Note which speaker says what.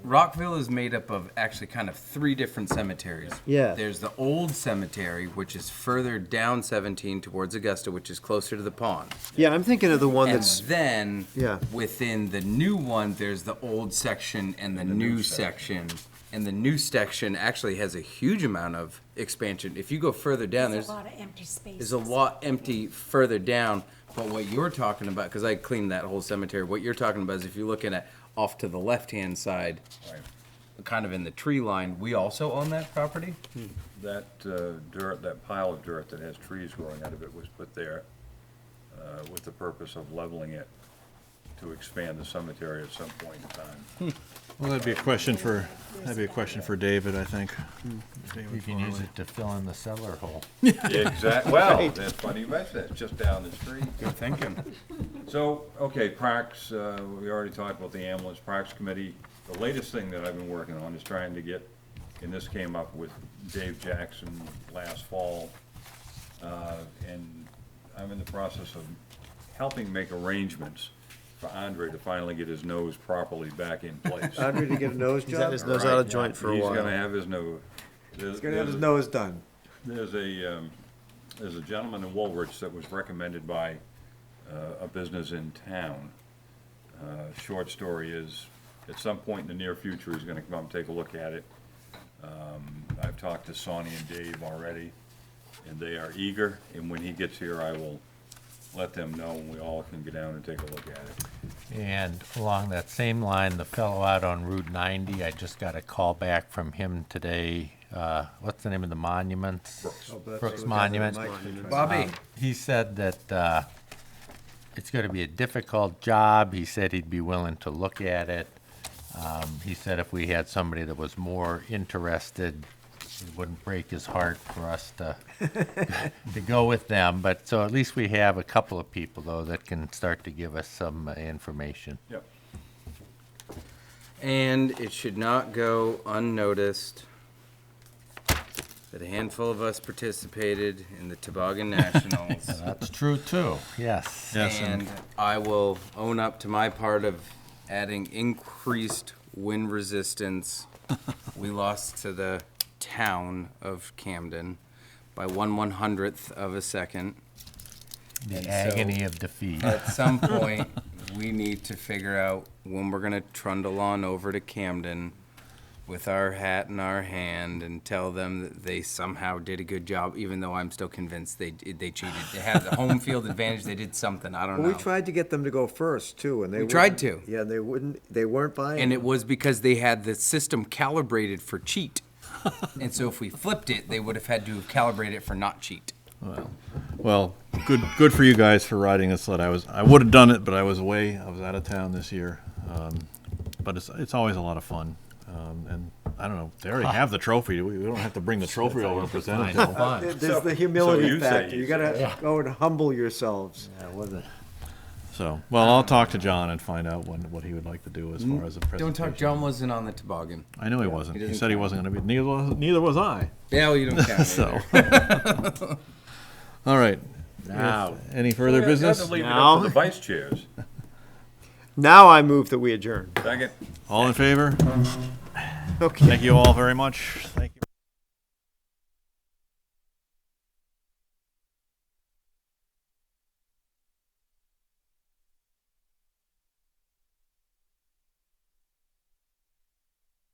Speaker 1: Rockville is made up of actually kind of three different cemeteries.
Speaker 2: Yeah.
Speaker 1: There's the old cemetery, which is further down 17 towards Augusta, which is closer to the pond.
Speaker 2: Yeah, I'm thinking of the one
Speaker 1: And
Speaker 2: that's,
Speaker 1: then
Speaker 2: Yeah.
Speaker 1: within the new one, there's the old section and the, new, section. And the new section actually has a huge amount of expansion. If you go further down,
Speaker 3: There's
Speaker 1: there's
Speaker 3: a lot of empty spaces.
Speaker 1: there's a lot empty further down. But what you're talking about, because I cleaned that whole cemetery, what you're talking about is if you're looking at off to the left hand side, kind of in the tree line, we also own that property.
Speaker 4: That uh, dirt, that pile of dirt that has trees growing out of it was put there uh, with the purpose of leveling it to expand the cemetery at some point in time.
Speaker 5: Well, that'd be a question for, that'd be a question for David, I think.
Speaker 6: You can use it to fill in the cellar hole.
Speaker 4: Exactly, well, that's funny you mention that, it's just down the street.
Speaker 1: Good thinking.
Speaker 4: So, okay, Parks, uh, we already talked about the ambulance, Parks Committee. The latest thing that I've been working on is trying to get, and this came up with Dave Jackson last fall. uh, And I'm in the process of helping make arrangements for Andre to finally get his nose properly back in place.
Speaker 2: I'm ready to get a nose
Speaker 6: He's had
Speaker 2: job.
Speaker 6: his nose
Speaker 4: Right,
Speaker 6: out of
Speaker 4: yeah.
Speaker 6: joint for a
Speaker 4: He's gonna
Speaker 6: while.
Speaker 4: have his nose. He's
Speaker 6: Gonna have his nose done.
Speaker 4: there's a, um, there's a gentleman in Woolwich that was recommended by, uh, a business in town. Uh, short story is, at some point in the near future, he's gonna come up and take a look at it. Um, I've talked to Sonny and Dave already, and they are eager, and when he gets here, I will let them know, and we all can go down and take a look at it.
Speaker 6: And along that same line, the fellow out on Route 90, I just got a call back from him today. Uh, What's the name of the monuments? Brooks Monument. Um,
Speaker 1: Bobby,
Speaker 6: He said that uh, it's going to be a difficult job. He said he'd be willing to look at it. Um, He said if we had somebody that was more interested, it wouldn't break his heart for us to, to go with them. But, so at least we have a couple of people, though, that can start to give us some uh, information.
Speaker 4: Yep.
Speaker 1: And it should not go unnoticed that a handful of us participated in the Toboggan Nationals.
Speaker 6: That's true, too. Yes.
Speaker 5: Yes, and
Speaker 1: And I will own up to my part of adding increased wind resistance. We lost to the town of Camden by one one hundredth of a second.
Speaker 6: The
Speaker 1: And so-
Speaker 6: agony of defeat.
Speaker 1: At some point, we need to figure out when we're gonna trundle on over to Camden with our hat in our hand and tell them that they somehow did a good job, even though I'm still convinced they, they cheated. They had the home field advantage, they did something, I don't know.
Speaker 2: We tried to get them to go first too, and they.
Speaker 1: We tried
Speaker 2: wouldn't-
Speaker 1: to.
Speaker 2: Yeah, they wouldn't, they weren't buying.
Speaker 1: And it was because they had the system calibrated for cheat. and so if we flipped it, they would have had to have calibrated it for not cheat.
Speaker 5: Well, good, good for you guys for riding this sled. I was, I would have done it, but I was away. I was out of town this year. Um, But it's, it's always a lot of fun. Um, And I don't know, they already have the trophy. We we don't have to bring the trophy over and present it. to them.
Speaker 6: Fun.
Speaker 2: There- There's
Speaker 4: So-
Speaker 2: the
Speaker 4: so
Speaker 2: humility
Speaker 4: you say
Speaker 2: factor. You
Speaker 4: he's-
Speaker 2: gotta go and humble yourselves.
Speaker 5: So, well, I'll talk to John and find out when, what he would like to do as far as a presentation.
Speaker 1: Don't talk, John wasn't on the toboggan.
Speaker 5: I know he wasn't.
Speaker 1: he
Speaker 5: He
Speaker 1: doesn't
Speaker 5: said he wasn't gonna be, neither was, neither was I,
Speaker 1: Yeah, well, you don't count. me
Speaker 5: so.
Speaker 1: there.
Speaker 5: All right.
Speaker 6: Now.
Speaker 5: Any further
Speaker 4: Had
Speaker 5: business?
Speaker 4: to leave it up
Speaker 2: No.
Speaker 4: to the vice chairs.
Speaker 2: Now I move that we adjourn.
Speaker 4: Second.
Speaker 5: All in favor?
Speaker 2: Okay.
Speaker 5: Thank you all very much. Thank you.